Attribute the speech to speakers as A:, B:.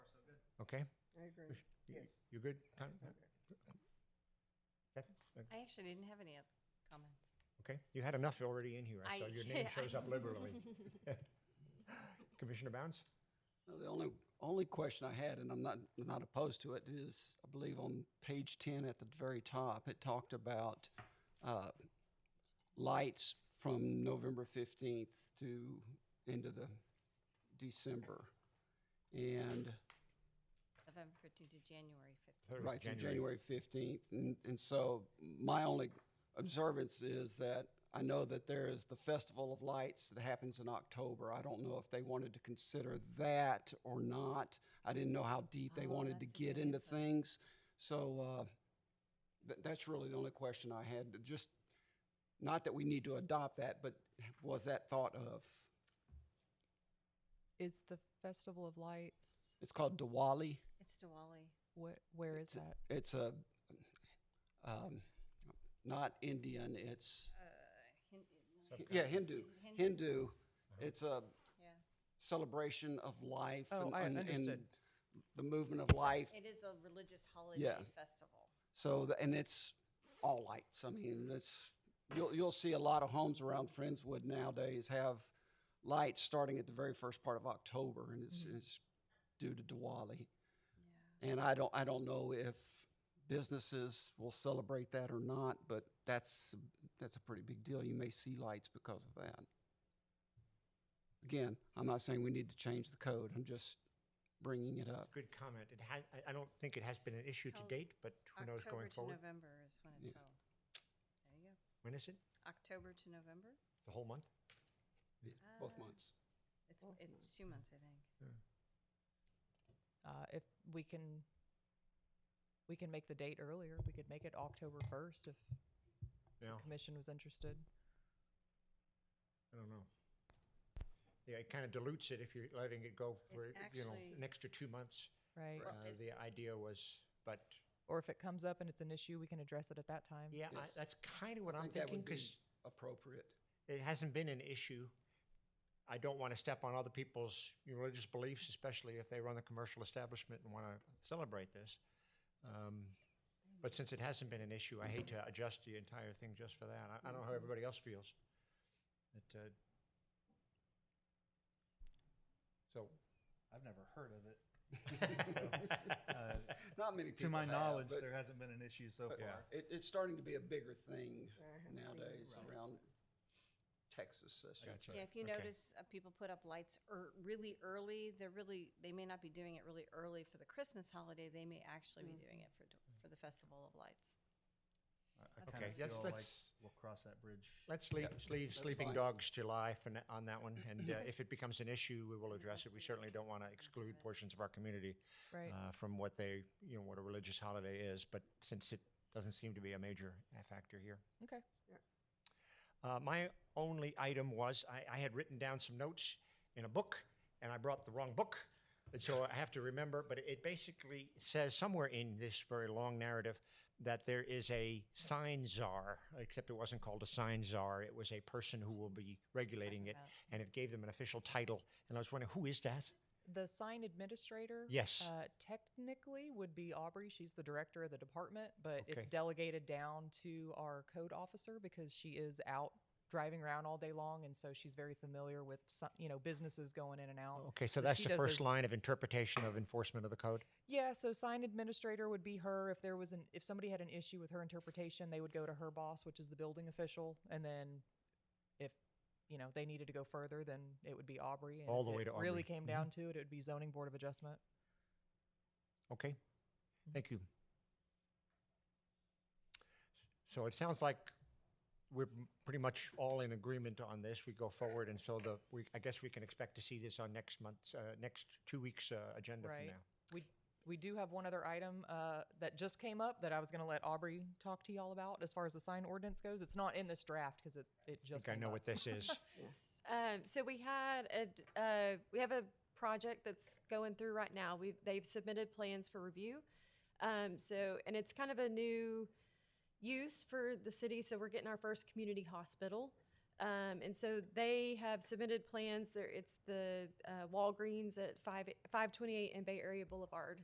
A: Okay?
B: I agree.
A: You-
B: Yes.
A: You good? Con-
B: Yes, I'm good.
A: Kathy? Uh,
C: I actually didn't have any other comments.
A: Okay, you had enough already in here. I
C: I-
A: saw your name
C: I-
A: shows up liberally. Commissioner Bounds?
D: Now, The only, only question I had, and I'm not, not opposed to it, is I believe on page 10 at the very top, it talked about uh, lights from November 15th to end of the December. And,
C: November 15th to January 15th.
A: That was
D: right, through January 15th. And, and so my only observance is that I know that there is the Festival of Lights that happens in October. I don't know if they wanted to consider that or not. I didn't know how deep they wanted to get into things. So uh, th- that's really the only question I had. Just, not that we need to adopt that, but was that thought of?
E: Is the Festival of Lights,
D: It's called Diwali.
C: It's Diwali.
E: what, where is that?
D: It's a, um, not Indian, it's.
C: Hin-
D: Yeah, Hindu.
C: Uh, Hindu?
D: Hindu. It's a
C: Yeah,
D: celebration of life.
E: Oh, I understood.
D: and the movement of life.
C: it is a religious holiday
D: Yeah.
C: festival.
D: So, the, and it's all lights. I mean, it's you'll you'll see a lot of homes around Friendswood nowadays have lights starting at the very first part of October, and
E: Mm-hmm.
D: it's, it's due to Diwali. And I don't I don't know if businesses will celebrate that or not, but that's that's a pretty big deal. You may see lights because of that. Again, I'm not saying we need to change the code. I'm just bringing it up.
A: Good comment. It had, I, I don't think it has been an issue to date, but who knows
C: October
A: going
C: to
A: forward?
C: November is when it's held. There you go.
A: When is it?
C: October to November?
A: The whole month?
D: Both months.
C: It's, it's two months, I think.
E: Uh, if we can, we can make the date earlier. We could make it October 1st if
A: No,
E: commission was interested.
A: I don't know. Yeah, it kind of dilutes it if you're letting it go for, you know,
C: actually-
A: an extra two months.
E: Right.
C: Well,
A: Uh,
C: it's-
A: The idea was, but,
E: Or if it comes up and it's an issue, we can address it at that time.
A: yeah, I-
D: Yes.
A: that's kind of what
D: I
A: I'm
D: think that
A: thinking,
D: would be
A: because
D: appropriate.
A: it hasn't been an issue. I don't want to step on other people's religious beliefs, especially if they run a commercial establishment and want to celebrate this. Um, But since it hasn't been an issue, I hate to adjust the entire thing just for that. I, I don't know how everybody else feels. It, uh, So,
F: I've never heard of it.
A: uh,
D: Not many people
F: To my
D: have,
F: knowledge,
D: but
F: there hasn't been an issue so far.
A: Yeah.
D: it, it's starting to be a bigger thing
B: I have seen it.
D: nowadays around Texas. I should
A: Gotcha.
D: say.
C: Yeah, if you
A: Okay.
C: notice, uh, people put up lights ear really early, they're really, they may not be doing it really early for the Christmas holiday, they may actually be doing it for, d- for the Festival of Lights.
F: I, I kind
A: Okay,
F: of
A: yes,
F: feel
A: let's-
F: like we'll cross that bridge.
A: let's leave, leave sleeping
D: fine.
A: dogs July for, na- on that one. And uh, if it becomes an issue, we will address it. We certainly don't want to exclude portions of our community.
E: Right.
A: uh, from what they, you know, what a religious holiday is, but since it doesn't seem to be a major uh, factor here.
E: Okay.
A: Uh, my only item was I, I had written down some notes in a book, and I brought the wrong book. And so I have to remember, but it basically says somewhere in this very long narrative that there is a sign czar, except it wasn't called a sign czar. It was a person who will be regulating it, and it gave them an official title. And I was wondering, who is that?
E: The sign administrator.
A: Yes.
E: Uh, technically would be Aubrey. She's the director of the department, but it's
A: Okay.
E: delegated down to our code officer because she is out driving around all day long. And so she's very familiar with some, you know, businesses going in and out.
A: Okay, so that's
E: she
A: the
E: does
A: first
E: those-
A: line of interpretation of enforcement of the code.
E: Yeah, so sign administrator would be her. If there was an if somebody had an issue with her interpretation, they would go to her boss, which is the building official, and then if you know they needed to go further, then it would be Aubrey. And
A: All
E: if
A: the way
E: it
A: to Aubrey. Mm-hmm.
E: Really came down to it, it would be zoning board of adjustment.
A: Okay,
E: Mm-hmm.
A: thank you. So it sounds like we're m- pretty much all in agreement on this. We go forward, and so the, we, I guess we can expect to see this on next month's, uh, next two weeks' uh, agenda from
E: Right.
A: now.
E: We we do have one other item uh, that just came up that I was going to let Aubrey talk to y'all about as far as the sign ordinance goes. It's not in this draft because it it
A: I
E: just
A: think I
E: came
A: know
E: up.
A: what this is.
G: Um, so we had a d- uh, we have a project that's going through right now. We they've submitted plans for review. Um, so and it's kind of a new use for the city. So we're getting our first community hospital. Um, and so they have submitted plans. There, it's the uh, Walgreens at five five twenty eight and Bay Area Boulevard.